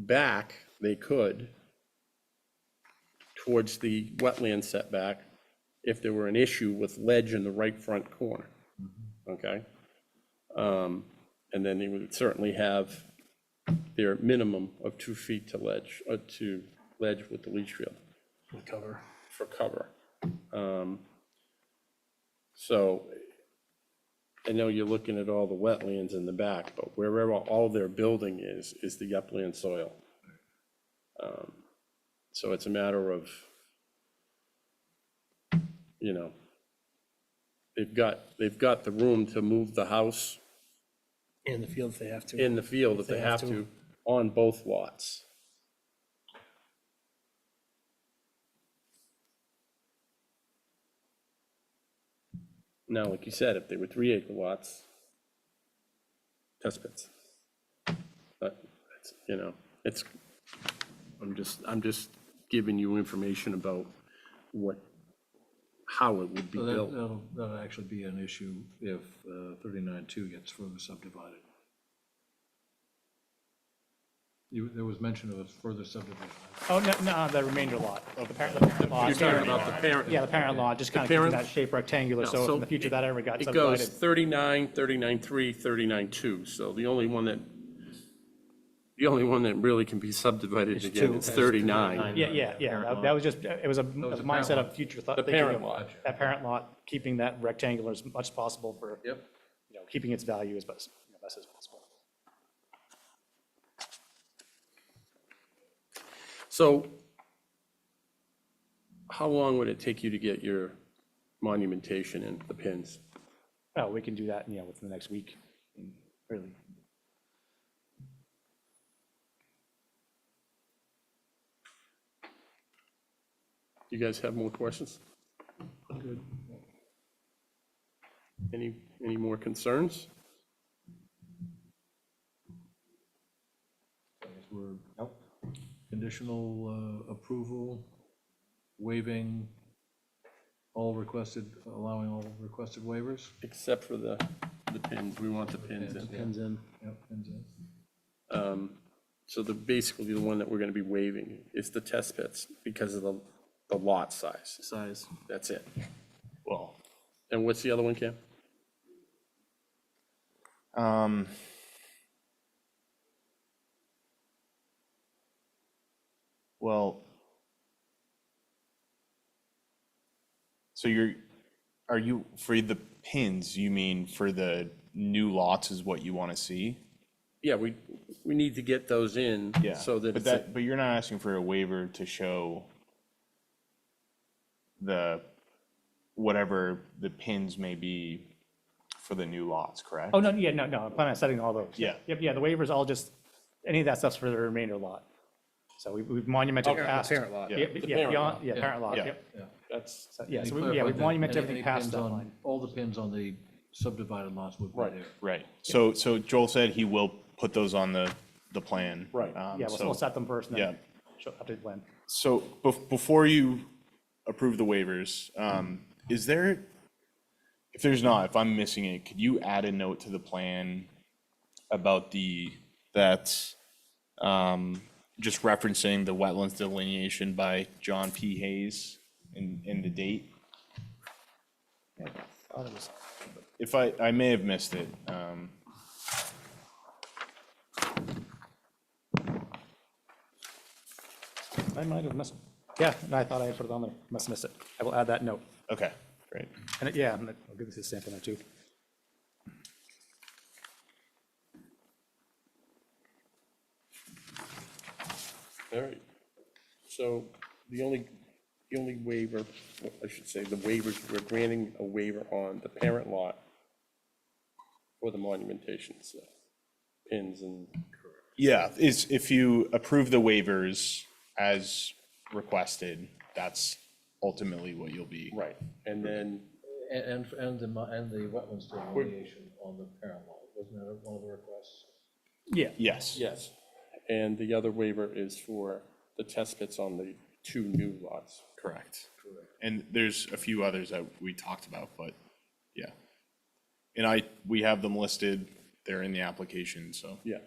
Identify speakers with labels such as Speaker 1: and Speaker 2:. Speaker 1: back, they could, towards the wetland setback, if there were an issue with ledge in the right front corner, okay? Um, And then they would certainly have their minimum of two feet to ledge, uh, to ledge with the leach field
Speaker 2: cover.
Speaker 1: for cover. Um, So I know you're looking at all the wetlands in the back, but wherever all their building is, is the upland soil. Um, So it's a matter of, you know, they've got, they've got the room to move the house
Speaker 2: In the field if they have to.
Speaker 1: in the field if they have to on both lots. Now, like you said, if they were three acre lots, test pits. But, it's, you know, it's, I'm just, I'm just giving you information about what, how it would be
Speaker 3: Well, that-
Speaker 1: built.
Speaker 3: That'll, that'll actually be an issue if thirty-nine-two gets further subdivided. You, there was mention of a further subdivision.
Speaker 4: Oh, no, no, the remainder lot, the parent the lot.
Speaker 1: parent.
Speaker 4: Yeah, the parent lot, just kind of keeping
Speaker 1: parent-
Speaker 4: that shape rectangular, so if in the future that ever got
Speaker 1: It goes
Speaker 4: subdivided.
Speaker 1: 39, 39, 3, 39, 2, so the only one that, the only one that really can be subdivided again is 39.
Speaker 4: Yeah, yeah, yeah, that- that was just, it was a
Speaker 3: was a
Speaker 4: mindset
Speaker 3: parent
Speaker 4: of future thought.
Speaker 1: The
Speaker 4: thinking
Speaker 1: parent
Speaker 4: of
Speaker 1: lot.
Speaker 4: That parent lot, keeping that rectangular as much as possible for, you
Speaker 3: Yep.
Speaker 4: know, keeping its value as best, you know, best as possible.
Speaker 1: So how long would it take you to get your monumentation and the pins?
Speaker 4: Oh, we can do that, you know, within the next week, really.
Speaker 1: Do you guys have more questions? Any, any more concerns?
Speaker 3: I guess We're conditional uh, approval, waiving all requested, allowing all requested waivers.
Speaker 1: Except for the, the pins, we want the pins in.
Speaker 3: Pins in. Yep, pins in.
Speaker 1: So the, basically the one that we're gonna be waiving is the test pits because of the, the lot size.
Speaker 2: Size.
Speaker 1: That's it. Well. And what's the other one, Cam?
Speaker 5: Um, well, so you're, are you, for the pins, you mean for the new lots is what you want to see?
Speaker 1: Yeah, we, we need to get those in. So that
Speaker 5: But
Speaker 1: it's, a-
Speaker 5: that, but you're not asking for a waiver to show the, whatever the pins may be for the new lots, correct?
Speaker 4: Oh, no, yeah, no, no, I plan on setting all those.
Speaker 5: Yeah.
Speaker 4: Yep, yeah, the waiver's all just, any of that stuff's for the remainder lot. So we- we've monumented past.
Speaker 2: Parent lot.
Speaker 4: Yeah, yeah,
Speaker 1: parent
Speaker 4: beyond, yeah, parent lot,
Speaker 5: Yeah.
Speaker 4: yep.
Speaker 1: that's,
Speaker 4: So, Yeah,
Speaker 3: Any
Speaker 4: so we, yeah, we
Speaker 3: clarified that
Speaker 4: monument
Speaker 3: any-
Speaker 4: everything
Speaker 3: any
Speaker 4: past
Speaker 3: pins
Speaker 4: that
Speaker 3: on-
Speaker 4: line.
Speaker 3: All the pins on the subdivided lots would be
Speaker 1: Right.
Speaker 3: there.
Speaker 5: Right, so, so Joel said he will put those on the, the plan.
Speaker 1: Right.
Speaker 5: Um,
Speaker 4: Yeah, we'll,
Speaker 5: so-
Speaker 4: we'll set them first and then
Speaker 5: yeah.
Speaker 4: show- update plan.
Speaker 5: So bef- before you approve the waivers, um, is there, if there's not, if I'm missing it, could you add a note to the plan about the, that, um, just referencing the wetlands delineation by John P. Hayes and, and the date? If I, I may have missed it, um,
Speaker 4: I might have missed, yeah, and I thought I had put it on there, must have missed it. I will add that note.
Speaker 5: okay, great.
Speaker 4: And it- yeah, I'm gonna- I'll give this a stamp in there too.
Speaker 1: all right. So the only, the only waiver, well, I should say, the waivers, we're granting a waiver on the parent lot for the monumentation, so pins and
Speaker 5: Yeah, is, if you approve the waivers as requested, that's ultimately what you'll be.
Speaker 1: Right, and then,
Speaker 3: And, and, and the, mo- and the wetlands delineation on the parent lot, wasn't that one of the requests?
Speaker 4: Yeah,
Speaker 5: Yes.
Speaker 1: yes. And the other waiver is for the test pits on the two new lots.
Speaker 5: Correct. And there's a few others that we talked about, but yeah. And I, we have them listed, they're in the application, so.
Speaker 1: Yeah.